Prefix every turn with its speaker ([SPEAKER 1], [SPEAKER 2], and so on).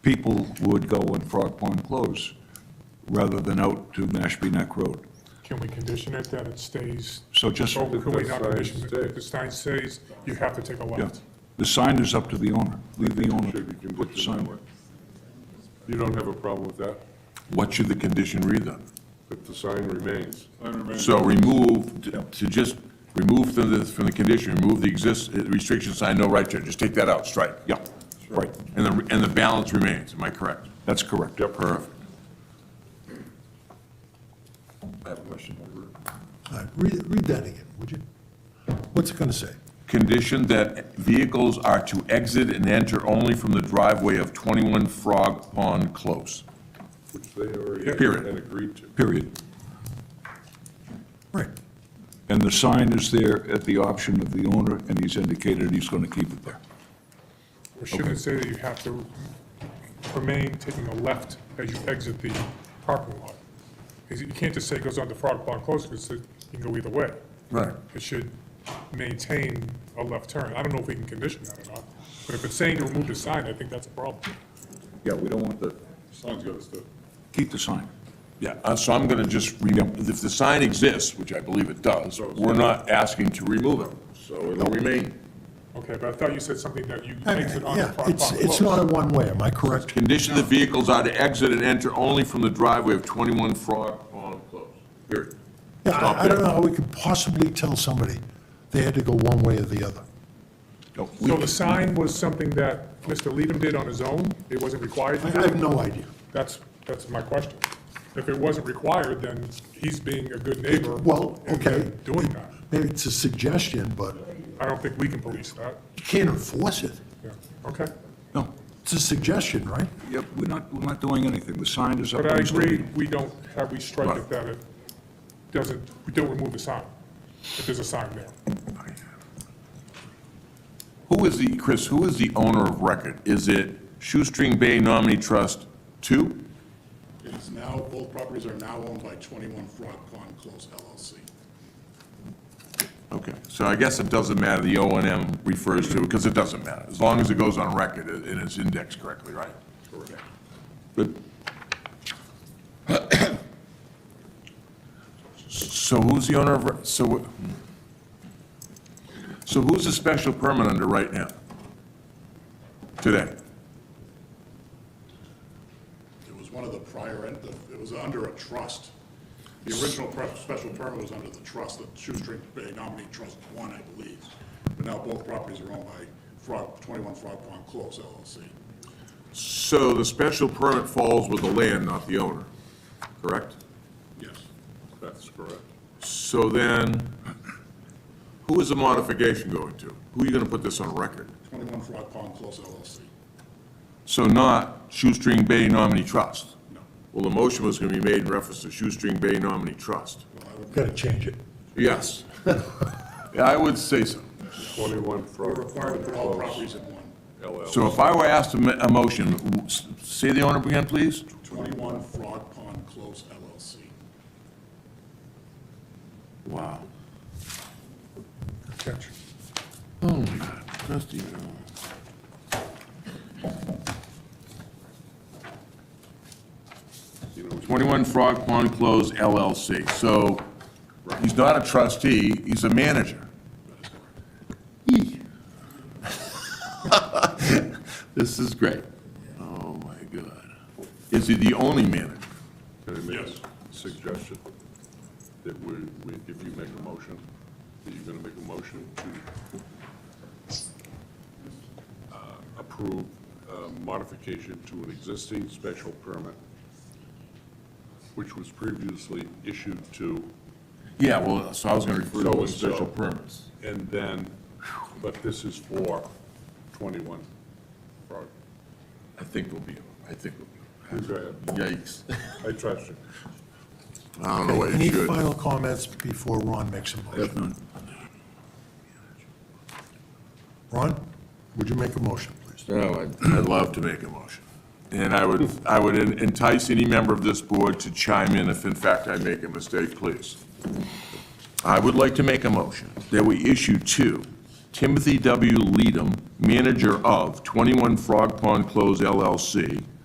[SPEAKER 1] people would go when Frog Pond closed, rather than out to Mashpee Neck Road.
[SPEAKER 2] Can we condition it that it stays?
[SPEAKER 1] So just,
[SPEAKER 2] Or can we
[SPEAKER 3] the
[SPEAKER 2] not
[SPEAKER 3] sign
[SPEAKER 2] condition it? If
[SPEAKER 3] stays.
[SPEAKER 2] the sign stays, you have to take a
[SPEAKER 1] yeah,
[SPEAKER 2] left.
[SPEAKER 1] the sign is up to the owner, leave the owner
[SPEAKER 3] Should be
[SPEAKER 1] to put the sign
[SPEAKER 3] conditioned that way. You don't have a problem with that,
[SPEAKER 4] What should the condition read then?
[SPEAKER 3] that the sign remains.
[SPEAKER 4] So remove, to just, remove from the, from the condition, remove the exist, uh, restriction sign, no right turn, just take that out, strike.
[SPEAKER 1] Yeah, right,
[SPEAKER 4] And the, and the balance remains, am I correct?
[SPEAKER 1] that's correct.
[SPEAKER 4] Perfect.
[SPEAKER 3] I have a question.
[SPEAKER 5] All right, read, read that again, would you? What's it gonna say?
[SPEAKER 4] Condition that vehicles are to exit and enter only from the driveway of 21 Frog Pond Close.
[SPEAKER 3] Which they already
[SPEAKER 4] Period.
[SPEAKER 3] had agreed to.
[SPEAKER 1] Period.
[SPEAKER 5] Right.
[SPEAKER 1] And the sign is there at the option of the owner, and he's indicated he's gonna keep it there.
[SPEAKER 2] Or should it say that you have to remain taking a left as you exit the parking lot? 'Cause You can't just say it goes on to Frog Pond Close, because it you can go either way.
[SPEAKER 4] Right.
[SPEAKER 2] It should maintain a left turn. I don't know if we can condition that or not, but if it's saying to remove the sign, I think that's a problem.
[SPEAKER 1] Yeah, we don't want the,
[SPEAKER 3] Sign's got to stay.
[SPEAKER 1] keep the sign.
[SPEAKER 4] Yeah, uh, so I'm gonna just, re- if the sign exists, which I believe it does, we're not asking to remove it, so it'll remain.
[SPEAKER 2] Okay, but I thought you said something that you exit on to
[SPEAKER 5] Yeah,
[SPEAKER 2] Frog Pond
[SPEAKER 5] it's,
[SPEAKER 2] Close.
[SPEAKER 5] it's not a one-way, am I correct?
[SPEAKER 4] Condition the vehicles are to exit and enter only from the driveway of 21 Frog Pond Close, period.
[SPEAKER 5] Yeah,
[SPEAKER 4] Stop
[SPEAKER 5] I, I don't
[SPEAKER 4] there.
[SPEAKER 5] know how we could possibly tell somebody they had to go one way or the other.
[SPEAKER 1] No, we-
[SPEAKER 2] So the sign was something that Mr. Leadham did on his own? It wasn't required
[SPEAKER 5] I
[SPEAKER 2] to
[SPEAKER 5] I have
[SPEAKER 2] do?
[SPEAKER 5] no idea.
[SPEAKER 2] That's, that's my question. If it wasn't required, then he's being a good neighbor.
[SPEAKER 5] Well,
[SPEAKER 2] and
[SPEAKER 5] okay.
[SPEAKER 2] then Doing that.
[SPEAKER 5] Maybe it's a suggestion, but
[SPEAKER 2] I don't think we can police that.
[SPEAKER 5] you can't enforce it.
[SPEAKER 2] Yeah, okay.
[SPEAKER 1] No,
[SPEAKER 5] It's a suggestion, right?
[SPEAKER 1] yep, we're not, we're not doing anything, the sign is up.
[SPEAKER 2] But I
[SPEAKER 1] He's gonna
[SPEAKER 2] agree,
[SPEAKER 1] keep-
[SPEAKER 2] we don't, have we strike it
[SPEAKER 4] Right.
[SPEAKER 2] that it doesn't, we don't remove the sign, if there's a sign there.
[SPEAKER 4] Who is the, Chris, who is the owner of record? Is it Shoestring Bay Nominee Trust 2?
[SPEAKER 6] It is now, both properties are now owned by 21 Frog Pond Close LLC.
[SPEAKER 4] Okay, so I guess it doesn't matter, the O and M refers to, because it doesn't matter, as long as it goes on record and and it's indexed correctly, right? Correct. Good. So who's the owner of, re- so, what- so who's the special permit under right now? Today?
[SPEAKER 6] It was one of the prior, en- it was under a trust. The original pre- special permit was under the trust, the Shoestring Bay Nominee Trust One, I believe. But now both properties are owned by Frog, 21 Frog Pond Close LLC.
[SPEAKER 4] So the special permit falls with the land, not the owner, correct?
[SPEAKER 6] Yes.
[SPEAKER 3] That's correct.
[SPEAKER 4] So then, who is the modification going to? Who are you gonna put this on record?
[SPEAKER 6] 21 Frog Pond Close LLC.
[SPEAKER 4] So not Shoestring Bay Nominee Trust?
[SPEAKER 6] No.
[SPEAKER 4] Well, the motion was gonna be made in reference to Shoestring Bay Nominee Trust.
[SPEAKER 5] Gotta change it.
[SPEAKER 4] Yes. Yeah, I would say so.
[SPEAKER 3] 21
[SPEAKER 6] We're
[SPEAKER 3] Frog
[SPEAKER 6] required to
[SPEAKER 3] Pond
[SPEAKER 6] put all
[SPEAKER 3] Close
[SPEAKER 6] properties in one.
[SPEAKER 4] So
[SPEAKER 3] LLC.
[SPEAKER 4] if I were asked to ma- a motion, w- s- say the owner again, please?
[SPEAKER 6] 21 Frog Pond Close LLC.
[SPEAKER 4] Wow.
[SPEAKER 2] Catch.
[SPEAKER 4] Trustee. uh, Twenty-one Frog Pond Close LLC, so he's not a trustee, he's a manager. Eek. This is great. Oh, my God. Is he the only manager?
[SPEAKER 3] Can I make a suggestion that we, we- if you make a motion, that you're going to make a motion to uh, approve uh, modification to an existing special permit, which was previously issued to
[SPEAKER 4] Yeah, well, so I was gonna refer to it
[SPEAKER 3] So-and-so.
[SPEAKER 4] as special permits.
[SPEAKER 3] And then, but this is for 21 Frog.
[SPEAKER 4] I think we'll be, I think we'll be.
[SPEAKER 3] Go ahead.
[SPEAKER 4] Yikes.
[SPEAKER 3] I trust you.
[SPEAKER 4] I don't know what
[SPEAKER 5] Any final comments before Ron makes a motion? Ron, would you make a motion, please?
[SPEAKER 4] No, I'd I'd love to make a motion. And I would, I would entice any member of this board to chime in if in fact I make a mistake, please. I would like to make a motion that we issue to Timothy W. Leadham, manager of 21 Frog Pond Close LLC,